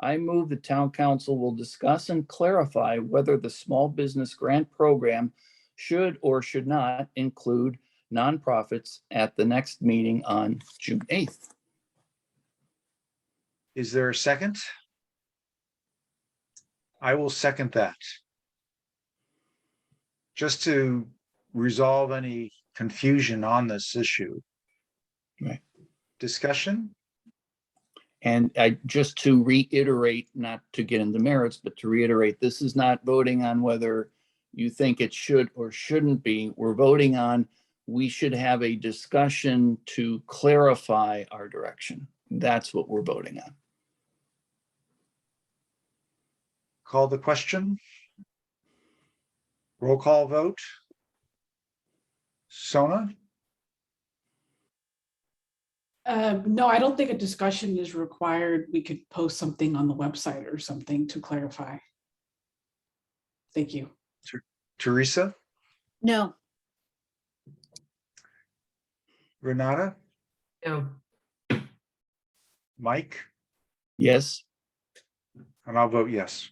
I move the town council will discuss and clarify whether the small business grant program should or should not include nonprofits at the next meeting on June 8th. Is there a second? I will second that. Just to resolve any confusion on this issue. Right. Discussion? And I, just to reiterate, not to get into merits, but to reiterate, this is not voting on whether you think it should or shouldn't be. We're voting on, we should have a discussion to clarify our direction. That's what we're voting on. Call the question? Roll call vote? Sona? Uh, no, I don't think a discussion is required. We could post something on the website or something to clarify. Thank you. Teresa? No, Renata? No, Mike? Yes? And I'll vote yes.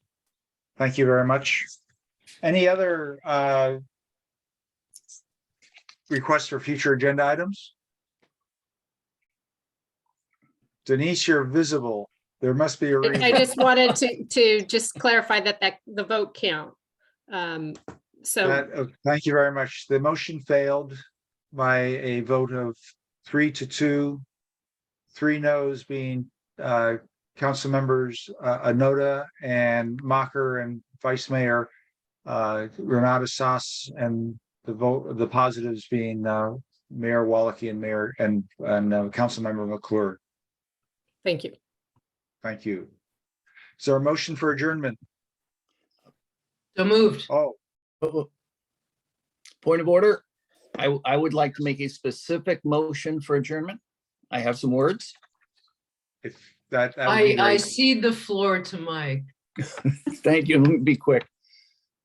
Thank you very much. Any other uh, requests for future agenda items? Denise, you're visible. There must be a I I reason. just wanted to, to just clarify that, that the vote count. Um, So, That- uh, Thank you very much. The motion failed by a vote of three to two. Three noes being uh, council members uh, Anoda and Mocker and Vice Mayor uh, Renata Sas and the vote, the positives being uh, Mayor Walke and Mayor and and uh, Councilmember McClure. thank you. Thank you. Is there a motion for adjournment? so moved. Oh, Point of order, I, I would like to make a specific motion for adjournment. I have some words. if that. that would be I, I great. cede the floor to Mike. Thank you. Let me be quick.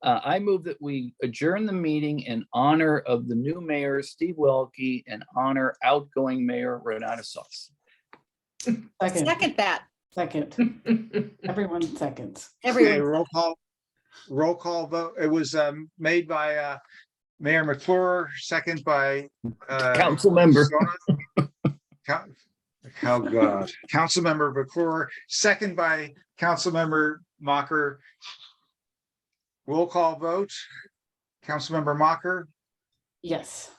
Uh, I move that we adjourn the meeting in honor of the new mayor, Steve Welke, and honor outgoing mayor Renata Sauce. Second, second that, second, everyone seconds. Okay, everyone. roll call, roll call vote. It was um made by uh Mayor McClure, second by uh. Council member. Sona. Coun- Oh, God. Councilmember McClure, second by Councilmember Mocker. Roll call vote. Councilmember Mocker, Yes.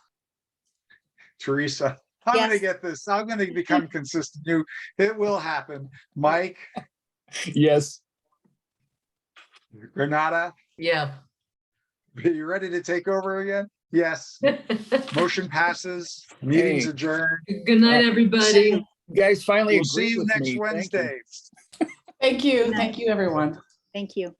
Teresa, I'm gonna Yes. get this. I'm gonna become consistent. You, it will happen. Mike, Yes. Renata, Yeah. are you ready to take over again? Yes. Good Motion passes, meeting's Hey. adjourned. night, See everybody. you- You guys finally We'll see agreed you with next me. Thank you. Wednesday. Thank you. night. Thank you, everyone. Thank you.